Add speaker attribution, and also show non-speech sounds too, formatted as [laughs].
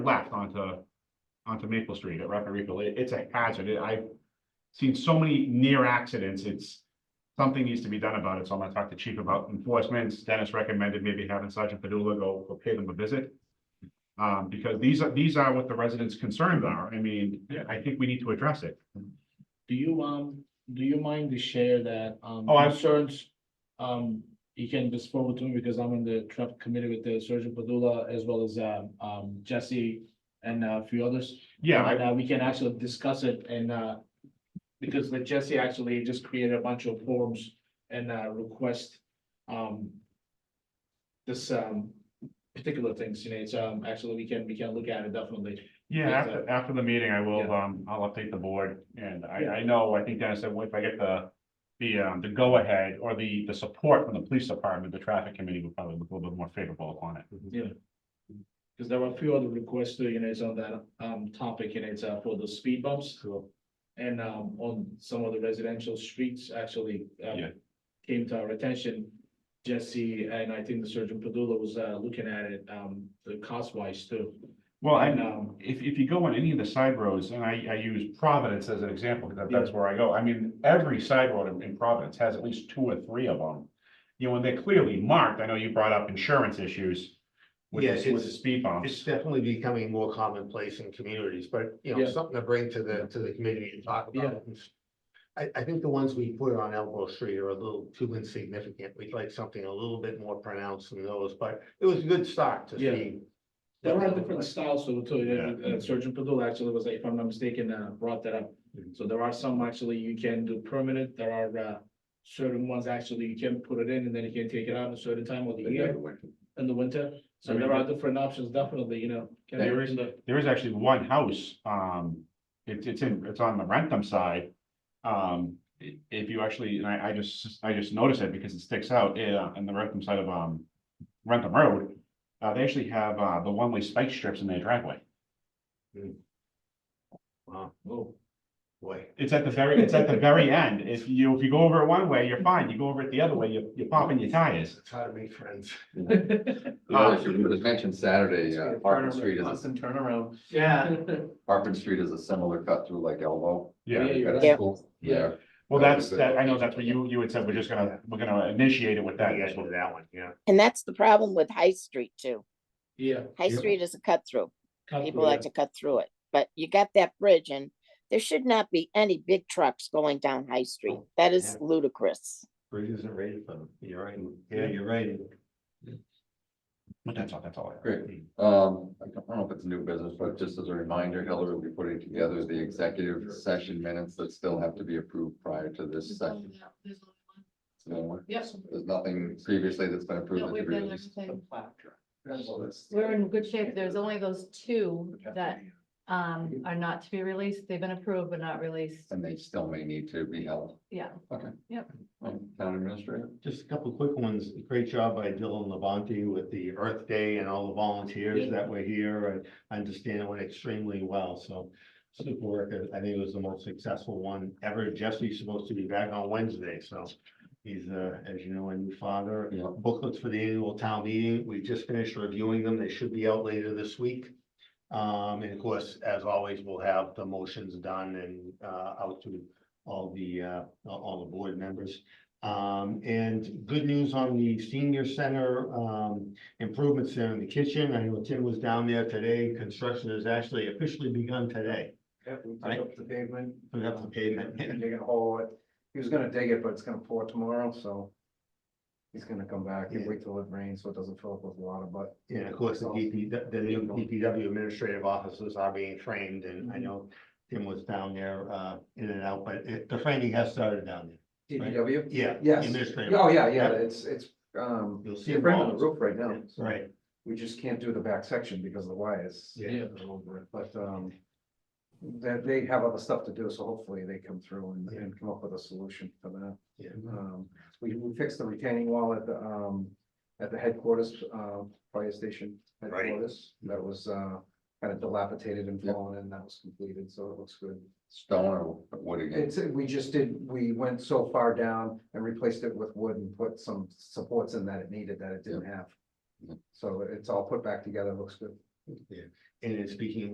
Speaker 1: left onto, onto Maple Street at Rapid Refill. It, it's a hazard. It- I've seen so many near accidents. It's, something needs to be done about it. So I'm gonna talk to chief about enforcement. Dennis recommended maybe having Sergeant Padula go, go pay them a visit. Um, because these are, these are what the residents' concerns are. I mean,
Speaker 2: Yeah.
Speaker 1: I think we need to address it.
Speaker 2: Do you, um, do you mind to share that, um,
Speaker 1: Oh, I-
Speaker 2: concerns? Um, you can just forward to me because I'm in the traffic committee with the Sergeant Padula as well as, um, um, Jesse and uh, a few others.
Speaker 1: Yeah, I-
Speaker 2: And uh, we can actually discuss it and, uh, because the Jesse actually just created a bunch of forms and, uh, request, um, this, um, particular things, you know, it's, um, actually, we can, we can look at it definitely.
Speaker 1: Yeah,
Speaker 2: Yes,
Speaker 1: after, after the meeting, I will,
Speaker 2: Yeah.
Speaker 1: um, I'll update the board, and I,
Speaker 2: Yeah.
Speaker 1: I know, I think Dennis said, well, if I get the. The, um, the go-ahead or the, the support from the police department, the traffic committee would probably look a little bit more favorable upon it.
Speaker 2: Because there were a few other requests, too, you know, it's on that um topic, and it's uh for the speed bumps. And um on some of the residential streets actually um,
Speaker 1: Yeah.
Speaker 2: came to our attention. Jesse and I think the Surgeon Padula was uh looking at it um the cost wise too.
Speaker 1: Well, I
Speaker 2: And,
Speaker 1: know,
Speaker 2: um,
Speaker 1: if, if you go on any of the side roads, and I, I use Providence as an example, because
Speaker 2: Yeah.
Speaker 1: that's where I go, I mean, every side road in- in Providence has at least two or three of them. You know, and they're clearly marked, I know you brought up insurance issues. With,
Speaker 3: Yeah,
Speaker 1: the- with
Speaker 3: it's-
Speaker 1: the speed
Speaker 3: It's
Speaker 1: bumps,
Speaker 3: definitely becoming more commonplace in communities, but you know,
Speaker 2: Yeah.
Speaker 3: something to bring to the, to the community to talk about. I, I think the ones we put on Elbow Street are a little too insignificant. We'd like something a little bit more pronounced than those, but it was a good start to
Speaker 2: Yeah.
Speaker 3: see.
Speaker 2: There were different styles so too, uh, uh, Surgeon Padula actually was, if I'm not mistaken, uh brought that up.
Speaker 1: Mhm.
Speaker 2: So there are some actually you can do permanent, there are uh certain ones actually you can put it in and then you can take it out at a certain time of the year. in the winter, so
Speaker 1: I mean,
Speaker 2: there are different options, definitely, you know. can be
Speaker 1: There is-
Speaker 2: reasonable.
Speaker 1: there is actually one house, um, it's, it's in, it's on the Rentham side. Um, i- if you actually, and I, I just, I just noticed it because it sticks out, uh, on the Rentham side of, um, Rentham Road. Uh, they actually have, uh, the one-way spike strips in their driveway.
Speaker 3: Wow,
Speaker 2: Whoa.
Speaker 3: boy,
Speaker 1: It's at the very, it's at the very
Speaker 2: [laughs]
Speaker 1: end. If you, if you go over it one way, you're fine. You go over it the other way, you're, you're popping your tires.
Speaker 3: it's how to make friends. [laughs]
Speaker 4: You know,
Speaker 5: Oh.
Speaker 4: It was mentioned Saturday, uh, Hartman Street is,
Speaker 2: Constant turnaround.
Speaker 3: Yeah.
Speaker 4: Hartman Street is a similar cut through like Elbow.
Speaker 2: Yeah,
Speaker 4: You've got a
Speaker 2: Yeah.
Speaker 4: school there.
Speaker 1: Well, that's, that, I know that's what you, you had said, we're just gonna, we're gonna initiate it with that.
Speaker 3: That guy did that one, yeah.
Speaker 6: And that's the problem with High Street too.
Speaker 2: [laughs] Yeah.
Speaker 6: High
Speaker 3: Yeah.
Speaker 6: Street is a cut through.
Speaker 2: cut
Speaker 6: People
Speaker 2: through
Speaker 6: like
Speaker 2: that.
Speaker 6: to cut through it, but you got that bridge and there should not be any big trucks going down High Street. That is
Speaker 3: Oh, Yeah.
Speaker 6: ludicrous.
Speaker 3: Bridges isn't rated for them. You're right.
Speaker 1: Yeah,
Speaker 3: you're right.
Speaker 1: But that's all, that's all. I have.
Speaker 4: Great. Um, I don't know if it's new business, but just as a reminder, Hillary will be putting together the executive session minutes that still have to be approved prior to this
Speaker 5: There's only
Speaker 4: session.
Speaker 5: that- there's only one.
Speaker 4: So
Speaker 5: Yes.
Speaker 4: There's nothing previously that's been
Speaker 5: No,
Speaker 4: approved. that
Speaker 5: we've
Speaker 4: to be
Speaker 5: done
Speaker 4: released.
Speaker 5: everything.
Speaker 4: So that's-
Speaker 5: We're in good shape. There's only those two that um are not to be released. They've been approved but not released.
Speaker 4: And they still may need to be held.
Speaker 5: Yeah.
Speaker 4: Okay.
Speaker 5: Yep.
Speaker 4: Um, Town administrator.
Speaker 3: Just a couple quick ones. Great job by Dylan Levante with the Earth Day and all the volunteers
Speaker 2: Yeah.
Speaker 3: that were here. I understand it went extremely well, so. Super work. I think it was the most successful one ever. Jesse's supposed to be back on Wednesday, so. He's, uh, as you know, a new father.
Speaker 4: Yeah.
Speaker 3: Booklets for the annual town meeting. We just finished reviewing them. They should be out later this week. Um, and of course, as always, we'll have the motions done and, uh, out to all the, uh, all the board members. Um, and good news on the senior center, um, improvements there in the kitchen. I know Tim was down there today. Construction has actually officially begun today.
Speaker 7: Yeah, we took
Speaker 3: Right.
Speaker 7: up the pavement.
Speaker 3: Put up the pavement.
Speaker 7: Dig a hole. It- He was gonna dig it, but it's gonna pour tomorrow, so. He's gonna come back and
Speaker 3: Yeah.
Speaker 7: wait till it rains, so it doesn't fill up with water, but.
Speaker 3: And of course, the DP, the the new DPW administrative offices are being framed and I
Speaker 7: Mm-hmm.
Speaker 3: know Tim was down there, uh, in and out, but it, the framing has started down there.
Speaker 7: DPW?
Speaker 3: Yeah.
Speaker 7: Yes.
Speaker 3: Administrative.
Speaker 7: Oh, yeah, yeah, it's, it's, um,
Speaker 3: You'll see.
Speaker 7: they're bringing the
Speaker 3: walls.
Speaker 7: roof right now. so
Speaker 3: Right,
Speaker 7: We just can't do the back section because the wires.
Speaker 3: Yeah.
Speaker 2: Yeah.
Speaker 7: are over it, But, um, that they have other stuff to do, so hopefully they come through and,
Speaker 3: Yeah.
Speaker 7: and come up with a solution for that.
Speaker 3: yeah.
Speaker 7: Um, we, we fixed the retaining wall at the, um, at the headquarters, uh, fire station
Speaker 3: Right.
Speaker 7: headquarters. That was, uh, kind of dilapidated and
Speaker 4: Yeah.
Speaker 7: fallen in, that was completed, so it looks good.
Speaker 4: Stone or wood again?
Speaker 7: It's, we just did, we went so far down and replaced it with wood and put some supports in that it needed that it didn't have.
Speaker 4: Yeah.
Speaker 7: So it's all put back together, looks good.
Speaker 3: Yeah. And in speaking